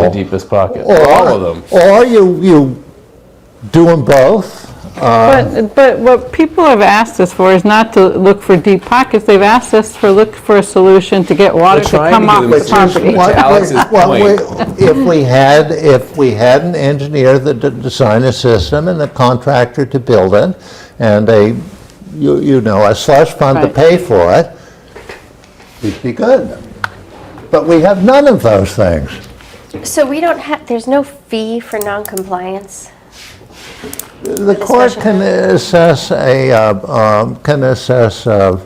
the deepest pocket, Or- all of them. Or you, you do them both. But, but what people have asked us for is not to look for deep pockets, they've asked us for, look for a solution to get water We're to trying to come do off them the solution. property. What- Alex's Well, we- point. If we had, if we had an engineer that d- designed a system and a contractor to build it, and a, you, you know, a slush fund to Right. pay for it, we'd be good. But we have none of those things. So we don't have, there's no fee for noncompliance? The court special can assess a, uh, um, can assess uh,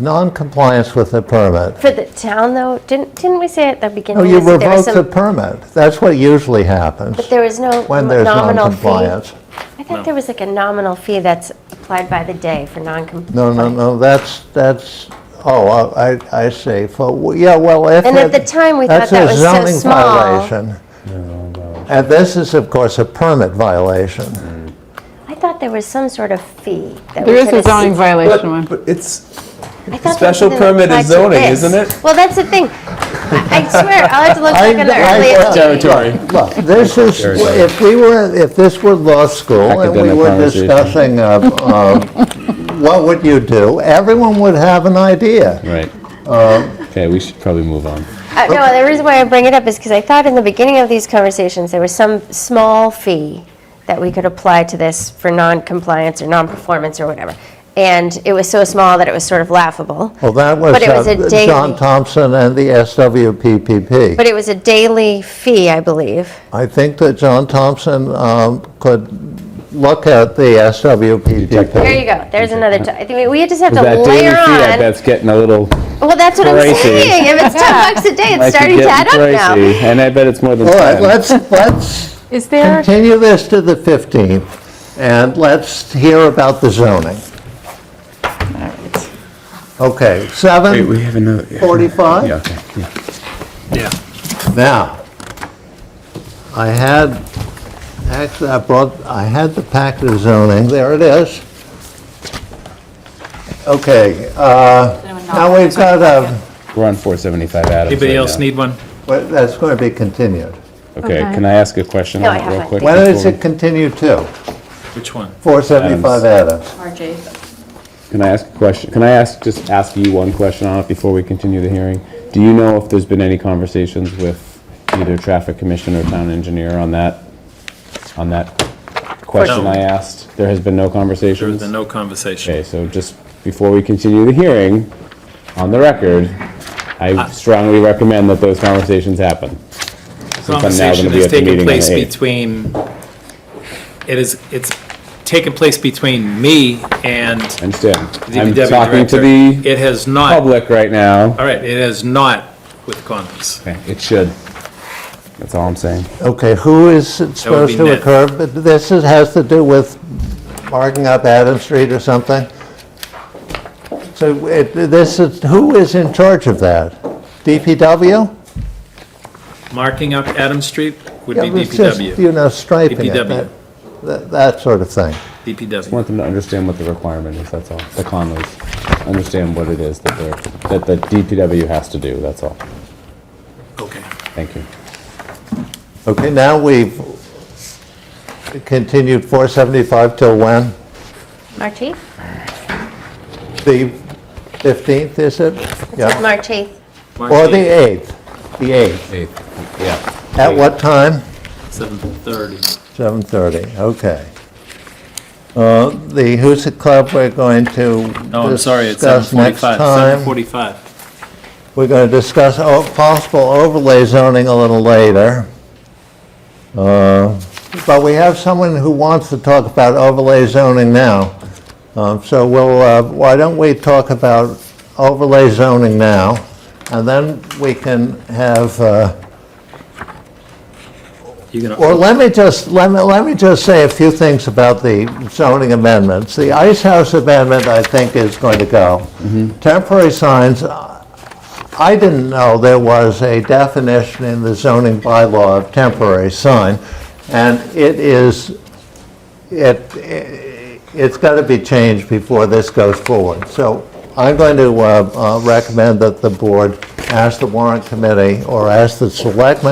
non-compliance with the permit. For the town, though, didn't, didn't we say at the No, beginning? Oh, you this- there was revoke some- the permit. That's what usually happens But there was no when there's nominal fee? noncompliance. I thought there was like a nominal fee that's applied by the day for noncompliance. No, no, no, that's, that's, oh, I, I see. For- Yeah, well, if. And at it- the time, we thought that was That's so a zoning small. violation. And this is, of course, a permit violation. I thought there was some sort of fee that we There is could a zoning assi- violation one. But it's, I thought there was Special something that permit is applied to zoning, this. isn't it? Well, that's the thing. I I swear, I'll have to look I- back in the I- earliest meeting. territory. Look, this is, if we were, if this were law school and we Academic were conversation. discussing, uh, uh, what would you do, everyone would have an idea. Right. Um, Okay, we should probably move on. Uh, No, the reason why I bring it up is because I thought in the beginning of these conversations, there was some small fee that we could apply to this for non-compliance or non-performance or whatever. And it was so small that it was sort of laughable. Well, that was But it was a uh, daily- John Thompson and the SWPPP. But it was a daily fee, I believe. I think that John Thompson um, could look at the There SWPPP. you go, there's another, t- I think we just have to That daily fee, later I on. bet's getting a little Well, that's what I'm pricey. saying, if it's 10 bucks a day, it's might be starting to getting add up now. pricey, And I bet it's more than All right, 10. let's, let's Is there, continue this to the 15th, and let's hear about the zoning. Okay, Wait, we 7, have another. yeah. 45? Yeah, okay, yeah. now, I had, actually, I brought, I had the packet of zoning, there it is. Okay, uh, now we've got a, We're on 475 Adams. Anybody right else now. need one? well, that's going to be continued. Okay, Okay. can I ask a question No, on I it have real one. quick? When before is we- it continue to? Which one? 475 Adams. March 8th. Can I ask a question? Can I ask, just ask you one question on it before we continue the hearing? Do you know if there's been any conversations with either traffic commission or town engineer on that, on that question No. I asked? There has been no There was conversations? been no conversation. Okay, so just before we continue the hearing, on the record, Uh, I strongly recommend that those conversations happen. I'm now gonna conversation be is at the meeting taking on place the eighth. between, it is, it's taken place between me and Understand? the I'm DPW director. talking to the It has not, all public right now. right, it has not with Congress. Okay, It should. That's all I'm saying. Okay, who is it That would be supposed to Ned. occur? But This is- has to do with marking up Adams Street or something? So it- this is, who is in charge of that? DPW? Marking up Adam Street would be Yeah, it's just, DPW, You know, striping it, DPW. that- that that sort of thing. I DPW. want them to understand what the requirement is, that's all. The Conleys, understand what it is that they're, that the DPW has to do, that's all. Okay. Thank you. Okay, now we've continued 475 till when? March 8th? The 15th, is it? It's Yeah. March 8th, March Or the 8th, 8th? The 8th. yeah. At what time? 7:30. 7:30, okay. Uh, The Husa Club, we're going to No, I'm sorry, it's discuss next 7:45, time. 7:45. We're going to discuss o- possible overlay zoning a little later. Uh, But we have someone who wants to talk about overlay zoning now. Um, So we'll, uh, why don't we talk about overlay zoning now? And then we can have uh, You're gonna- Well, let me just, let me, let me just say a few things about the zoning amendments. The Ice House amendment, I think, is going to go. Temporary signs, uh, I didn't know there was a definition in the zoning bylaw of temporary sign, and it is, it, it's got to be changed before this goes forward. So I'm going to uh, uh, recommend that the board ask the warrant committee or ask the selectmen